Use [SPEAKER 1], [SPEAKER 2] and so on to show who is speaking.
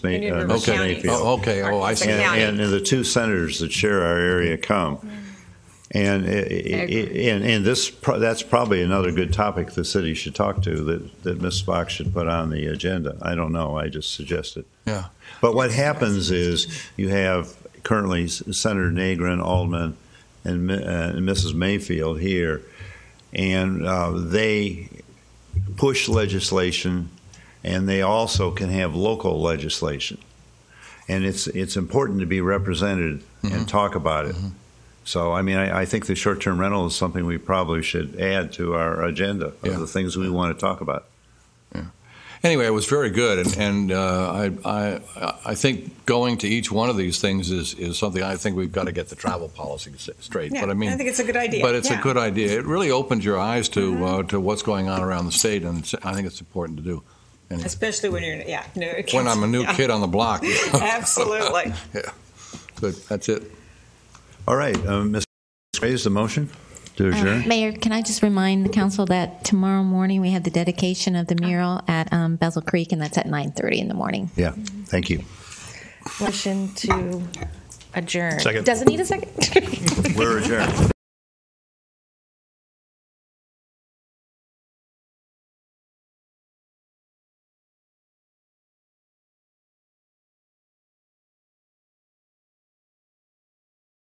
[SPEAKER 1] Na- uh,
[SPEAKER 2] Union River
[SPEAKER 1] Mr.
[SPEAKER 2] County.
[SPEAKER 1] Mayfield.
[SPEAKER 3] Oh, okay, oh, I
[SPEAKER 2] Arkansas
[SPEAKER 3] see.
[SPEAKER 2] County.
[SPEAKER 1] And, and the two senators that share our area come.
[SPEAKER 2] Mm-hmm.
[SPEAKER 1] And, i- i- i- and, and this, pro- that's probably another good topic the city should talk to, that, that Ms. Fox should put on the agenda. I don't know, I just suggested.
[SPEAKER 3] Yeah.
[SPEAKER 1] But what happens is, you have currently Senator Nagrin, Alderman, and Mi- uh, and Mrs. Mayfield here, and uh, they push legislation, and they also can have local legislation. And it's, it's important to be represented and talk about it. So, I mean, I, I think the short-term rental is something we probably should add to our agenda
[SPEAKER 3] Yeah.
[SPEAKER 1] of the things we want to talk about.
[SPEAKER 3] Anyway, it was very good, and, and uh, I, I, I think going to each one of these things is, is something I think we've got to get the travel policy s- straight.
[SPEAKER 2] Yeah,
[SPEAKER 3] but I mean,
[SPEAKER 2] I think it's a good idea.
[SPEAKER 3] But it's a
[SPEAKER 2] Yeah. Mm-hmm.
[SPEAKER 3] good idea. It really opens your eyes to uh, to what's going on around the state, and it's- I think it's important to do.
[SPEAKER 2] Especially when you're, yeah. new
[SPEAKER 3] When I'm a new
[SPEAKER 2] kids.
[SPEAKER 3] kid on the block,
[SPEAKER 2] Absolutely.
[SPEAKER 3] But that's it.
[SPEAKER 1] All right, uh, Ms. Graves, the motion to adjourn?
[SPEAKER 4] Uh, Mayor, can I just remind the council that tomorrow morning we have the dedication of the mural at um, Bezel Creek, and that's at 9:30 in the morning.
[SPEAKER 1] Yeah, thank you.
[SPEAKER 5] Motion to adjourn.
[SPEAKER 4] Doesn't need a second?
[SPEAKER 1] We're adjourned.